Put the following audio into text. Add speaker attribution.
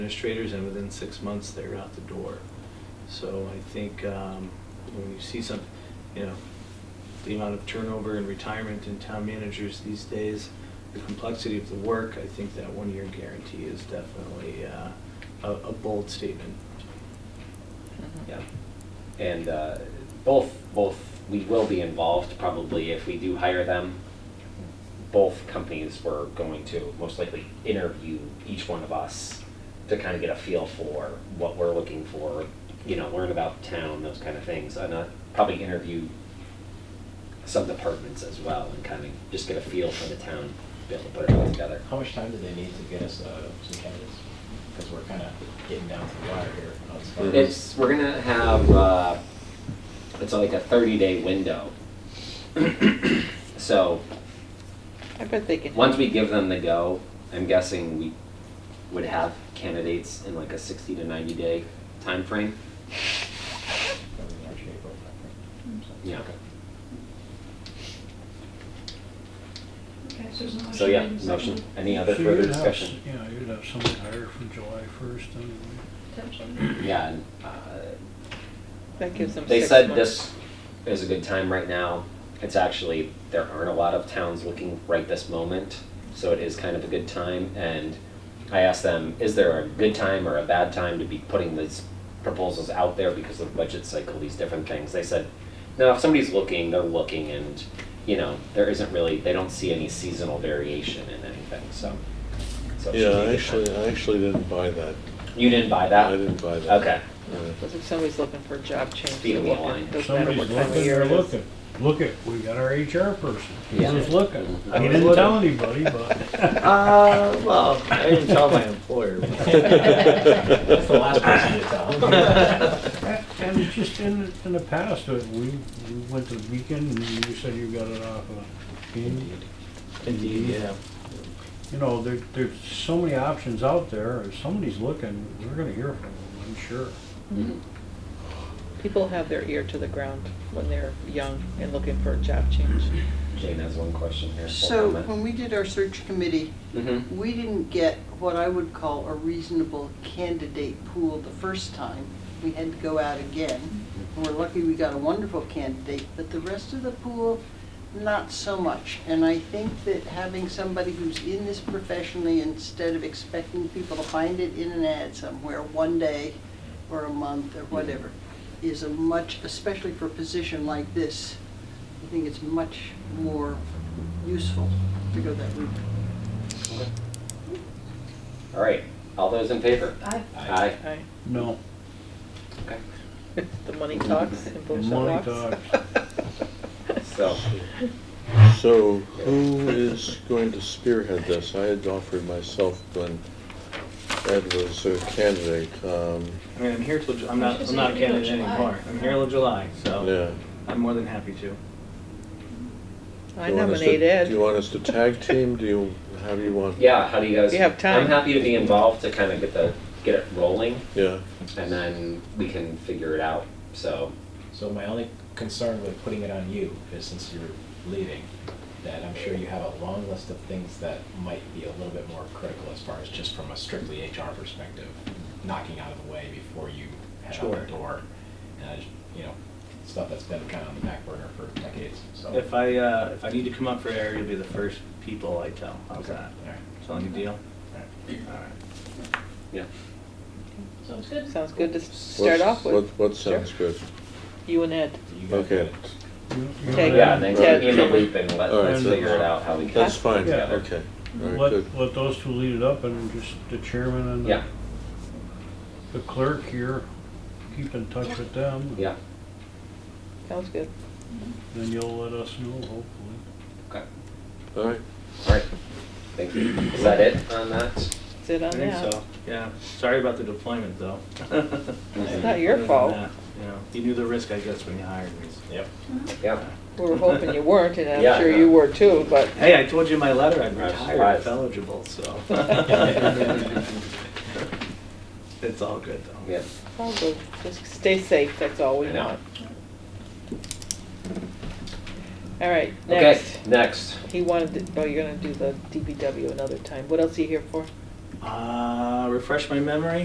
Speaker 1: administrators, and within six months, they're out the door. So I think um, when you see some, you know, the amount of turnover and retirement in town managers these days, the complexity of the work, I think that one-year guarantee is definitely uh, a a bold statement.
Speaker 2: Yeah, and uh, both, both, we will be involved probably if we do hire them. Both companies were going to most likely interview each one of us to kind of get a feel for what we're looking for, you know, learn about town, those kind of things. And uh, probably interview some departments as well and kind of just get a feel for the town, be able to put it all together.
Speaker 3: How much time do they need to get us uh, some candidates? Because we're kind of getting down to the wire here. on this one.
Speaker 2: It's, we're gonna have, uh, it's like a thirty day window. So,
Speaker 4: I bet they can.
Speaker 2: once we give them the go, I'm guessing we would have candidates in like a sixty to ninety day time frame.
Speaker 3: Probably March, April, I think. So,
Speaker 2: Yeah.
Speaker 3: okay.
Speaker 5: Okay, so there's a motion.
Speaker 2: So yeah,
Speaker 5: and a second.
Speaker 2: motion, any other
Speaker 6: So
Speaker 2: further
Speaker 6: you'd have s-
Speaker 2: discussion?
Speaker 6: Yeah, you'd have someone hired from July first anyway.
Speaker 5: Potentially.
Speaker 2: Yeah, and, uh,
Speaker 4: That gives them
Speaker 2: They
Speaker 4: six
Speaker 2: said
Speaker 4: months.
Speaker 2: this is a good time right now. It's actually, there aren't a lot of towns looking right this moment, so it is kind of a good time. And I asked them, is there a good time or a bad time to be putting these proposals out there because of the budget cycle, these different things? They said, no, if somebody's looking, they're looking and, you know, there isn't really, they don't see any seasonal variation in anything, so. so it should be a
Speaker 7: Yeah,
Speaker 2: good
Speaker 7: I
Speaker 2: time.
Speaker 7: actually, I actually didn't buy that.
Speaker 2: You didn't buy Uh, that?
Speaker 7: I didn't buy that.
Speaker 2: Okay.
Speaker 7: Yeah.
Speaker 4: Because if somebody's looking for a job change,
Speaker 2: Feet
Speaker 4: they're
Speaker 2: on the
Speaker 4: looking,
Speaker 2: line.
Speaker 6: If
Speaker 4: doesn't matter
Speaker 6: somebody's
Speaker 4: what time of
Speaker 6: looking,
Speaker 4: year
Speaker 6: they're
Speaker 4: it is.
Speaker 6: looking. Look at, we got our HR person. He
Speaker 2: Yeah.
Speaker 6: was looking.
Speaker 2: I
Speaker 6: He
Speaker 2: was
Speaker 6: didn't
Speaker 1: looking.
Speaker 6: tell anybody, but.
Speaker 1: Uh, well, I didn't tell my employer.
Speaker 3: That's the last person to tell.
Speaker 6: And it's just in, in the past, uh, we, we went to the weekend and you said you got it off of. Indeed.
Speaker 1: Indeed, yeah.
Speaker 6: You know, there, there's so many options out there. If somebody's looking, we're gonna hear from them, I'm sure.
Speaker 4: People have their ear to the ground when they're young and looking for a job change.
Speaker 2: Jane has one question here.
Speaker 8: So when we did our search committee,
Speaker 2: hmm
Speaker 8: we didn't get what I would call a reasonable candidate pool the first time. We had to go out again. And we're lucky we got a wonderful candidate, but the rest of the pool, not so much. And I think that having somebody who's in this professionally, instead of expecting people to find it in an ad somewhere one day or a month or whatever, is a much, especially for a position like this, I think it's much more useful to go that route.
Speaker 2: All right, all those in favor?
Speaker 5: Aye.
Speaker 2: Aye.
Speaker 4: Right?
Speaker 6: No.
Speaker 2: Okay.
Speaker 4: The money talks and bullshit
Speaker 6: Money
Speaker 4: walks.
Speaker 2: So,
Speaker 7: So who is going to spearhead this? I had offered myself when Ed was a candidate, um,
Speaker 1: I mean, I'm here till, Ju- I'm not,
Speaker 5: Just
Speaker 1: I'm not a
Speaker 5: leave it till
Speaker 1: candidate
Speaker 5: July.
Speaker 1: anymore. I'm here till July, so
Speaker 2: Oh.
Speaker 7: yeah.
Speaker 1: I'm more than happy to.
Speaker 4: I
Speaker 7: Do you want us to-
Speaker 4: nominate Ed.
Speaker 7: Do you want us to tag team? Do you, how do you want?
Speaker 2: yeah, how do you guys?
Speaker 4: We have time.
Speaker 2: I'm happy to be involved to kind of get the, get it rolling,
Speaker 7: Yeah,
Speaker 2: and then we can figure it out, so.
Speaker 3: So my only concern with putting it on you is since you're leaving, that I'm sure you have a long list of things that might be a little bit more critical as far as just from a strictly HR perspective, knocking out of the way before you head out
Speaker 1: Sure.
Speaker 3: the door. And I just, you know, stuff that's been kind of on the back burner for decades, so.
Speaker 1: If I, uh, if I need to come up for air, you'll be the first people I tell. How's
Speaker 3: Okay.
Speaker 1: that?
Speaker 3: All right.
Speaker 1: Selling a deal?
Speaker 3: All right.
Speaker 1: All right.
Speaker 2: Yeah.
Speaker 5: Sounds good.
Speaker 4: Sounds good to s- start
Speaker 7: What's-
Speaker 4: off
Speaker 7: What,
Speaker 4: with.
Speaker 7: what sounds good?
Speaker 4: You and Ed.
Speaker 3: So you guys
Speaker 7: Okay,
Speaker 3: got it.
Speaker 6: You- you
Speaker 4: Take-
Speaker 6: know,
Speaker 2: Yeah, and then
Speaker 7: Right.
Speaker 2: keep me in the loop and let,
Speaker 7: All right,
Speaker 2: let's
Speaker 7: so-
Speaker 2: figure it out how we can.
Speaker 7: that's fine,
Speaker 6: Yeah.
Speaker 7: okay. All right, good.
Speaker 6: Let, let those two lead it up and just the chairman and the
Speaker 2: Yeah,
Speaker 6: the clerk here, keep in touch with them.
Speaker 2: yeah,
Speaker 4: Sounds good.
Speaker 6: Then you'll let us know, hopefully.
Speaker 2: okay,
Speaker 7: All right,
Speaker 2: all right, thank you. Is that it on that?
Speaker 4: Sit
Speaker 1: I
Speaker 4: on
Speaker 1: think
Speaker 4: that.
Speaker 1: so, yeah. Sorry about the deployment, though.
Speaker 4: Oh, It's not your fault.
Speaker 1: You know, you knew the risk, I guess, when you hired me.
Speaker 3: Yep.
Speaker 2: Yeah,
Speaker 4: We were hoping you weren't, and
Speaker 2: Yeah,
Speaker 4: I'm sure
Speaker 2: no.
Speaker 4: you were too, but
Speaker 1: Hey, I told you in my letter, I'm
Speaker 2: I was
Speaker 1: retired, if
Speaker 2: surprised.
Speaker 1: eligible, so. It's all good, though.
Speaker 2: yeah,
Speaker 4: all good. Just stay safe, that's all we
Speaker 2: I know.
Speaker 4: want. All right,
Speaker 2: Okay,
Speaker 4: next.
Speaker 2: next.
Speaker 4: He wanted, to- oh, you're gonna do the DPW another time. What else are you here for?
Speaker 1: Uh, refresh my memory.